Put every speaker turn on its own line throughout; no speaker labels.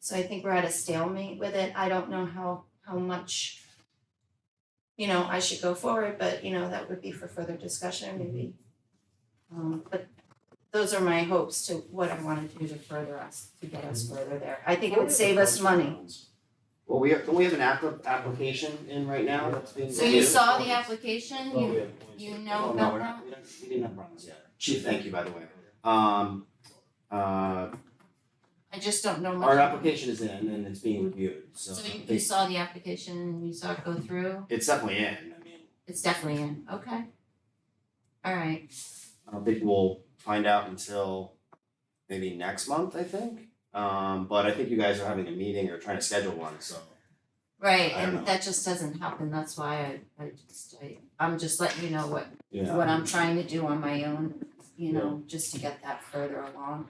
So I think we're at a stalemate with it. I don't know how, how much, you know, I should go forward, but you know, that would be for further discussion maybe. Um, but those are my hopes to what I want to do to further us, to get us further there. I think it would save us money.
Well, we have, don't we have an app- application in right now that's being.
So you
reviewed?
saw the application,
Well, we
you,
have points.
you
Oh,
know
no,
about
we're
that?
not, we don't, we didn't have problems yet. Chief, thank you, by the way. Um, uh,
I just don't know much.
our
about it.
application is in and it's being reviewed, so.
So you, you
it's-
saw the application, and you saw it go through,
It's definitely in, I mean,
it's definitely in, okay. All right,
I don't think we'll find out until maybe next month, I think. Um, but I think you guys are having a meeting or trying to schedule one, so.
right,
I don't know.
and that just doesn't happen, that's why I, I just, I, I'm just letting you know what,
Yeah.
what I'm trying to do on my own, you know, just to get that further along.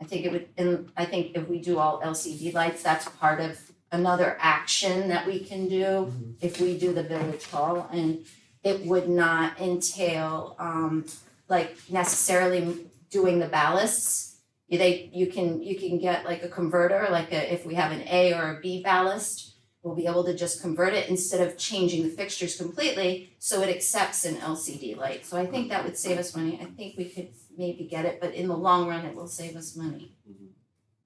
I think it would, and I think if we do all LCD lights, that's part of another action that we can do
Mm-hmm.
if we do the village hall, and it would not entail, um, like necessarily doing the ballasts. You- They, you can, you can get like a converter, like a, if we have an A or a B ballast, we'll be able to just convert it instead of changing the fixtures completely, so it accepts an LCD light. So I think that would save us money, I think we could maybe get it, but in the long run, it will save us money.
Mhm.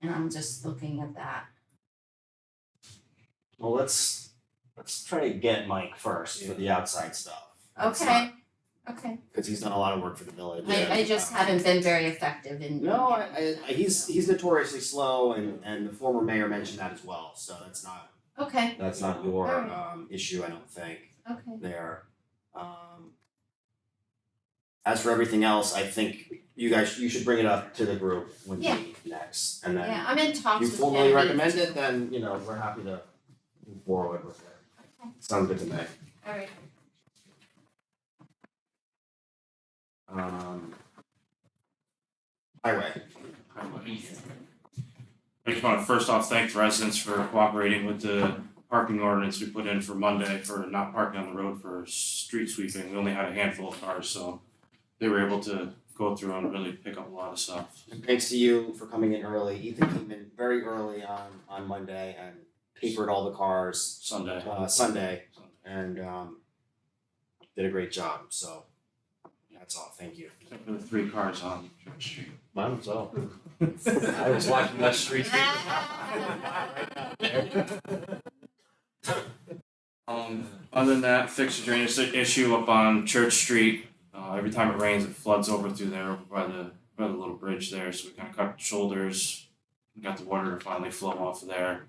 And I'm just looking at that,
Well, let's, let's try to get Mike first for the outside stuff. Let's
okay, okay.
not- Cause he's done a lot of work for the village.
I I just haven't been very effective in.
No, I, I, I- he's, he's notoriously slow and, and the former mayor mentioned that as well, so that's not,
Okay,
that's not your,
Alright.
um, issue, I don't think,
okay.
there. Um, As for everything else, I think you guys, you should bring it up to the group when we
Yeah.
meet next, and then
Yeah, I'm in talks
you
with
formally
Abby.
recommend it, then, you know, we're happy to move forward with it.
Okay.
Sounds good to me.
Alright,
Um. Highway.
I just want to first off thank the residents for cooperating with the parking ordinance we put in for Monday for not parking on the road for street sweeping. We only had a handful of cars, so they were able to go through and really pick up a lot of stuff.
And thanks to you for coming in early. Ethan came in very early on, on Monday and papered all the cars,
Sunday.
uh, Sunday, and, um, did a great job, so that's all. Thank you.
Except for the three cars on Church Street.
Mine was all. I was watching that street.
Um, other than that, fix the drainage issue up on Church Street. Uh, every time it rains, it floods over through there over by the by the little bridge there. So we kind of cut shoulders, and got the water to finally flow off of there.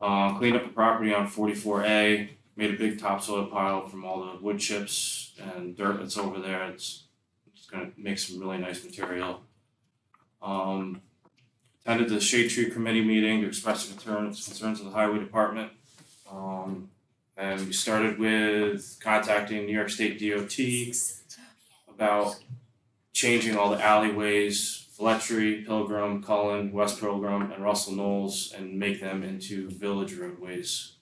Uh, cleaned up the property on 44A. Made a big topsoil pile from all the wood chips and dirt that's over there. It's it's gonna make some really nice material. Um, attended the shade tree committee meeting to express the concerns concerns of the highway department. Um, and we started with contacting New York State DOT about changing all the alleyways, Fletchery, Pilgrim, Cullen, West Pilgrim, and Russell Knowles, and make them into village roadways.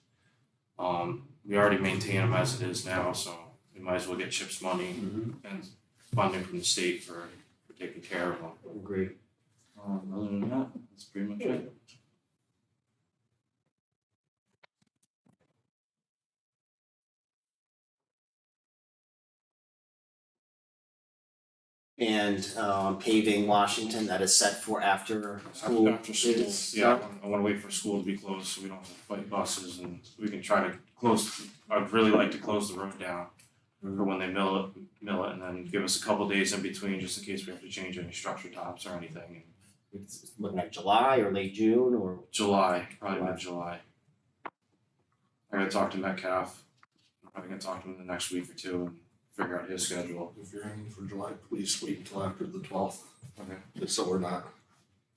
Um, we already maintain them as it is now, so we might as well get CHIPS money and funding from the state for, for taking care of them.
Agreed.
Um, other than that, that's pretty much it.
and um paving Washington that is set for after school.
After school,
is-
yeah, I wanna- I wanna wait for school to be closed so we don't have to fight buses and we can try to close, I'd really like to close the road down. For when they mill it, mill it and then give us a couple days in between just in case we have to change any structure tops or anything in
It's it's looking like July or late June or
July, probably mid-July. I gotta talk to Metcalf, I'm probably gonna talk to him in the next week or two and figure out his schedule.
If you're aiming for July, please wait until after the twelfth,
Okay.
just so we're not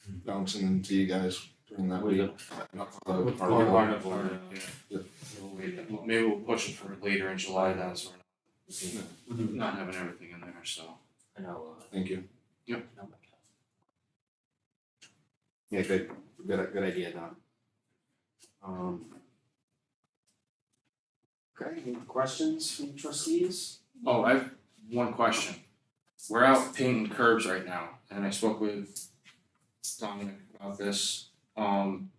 bouncing into you guys during that
With
week.
the-
Not for the-
Or-
our-
or- or-
Yeah.
yeah. We'll wait, well, maybe we'll push it for later in July then, so we're not, not having everything in there, so.
I know uh
Thank you.
no, my God. Yeah, good, good good idea, Don. Um Okay, any questions from trustees?
Oh, I have one question. We're out painting curbs right now, and I spoke with Dominic about this. Um,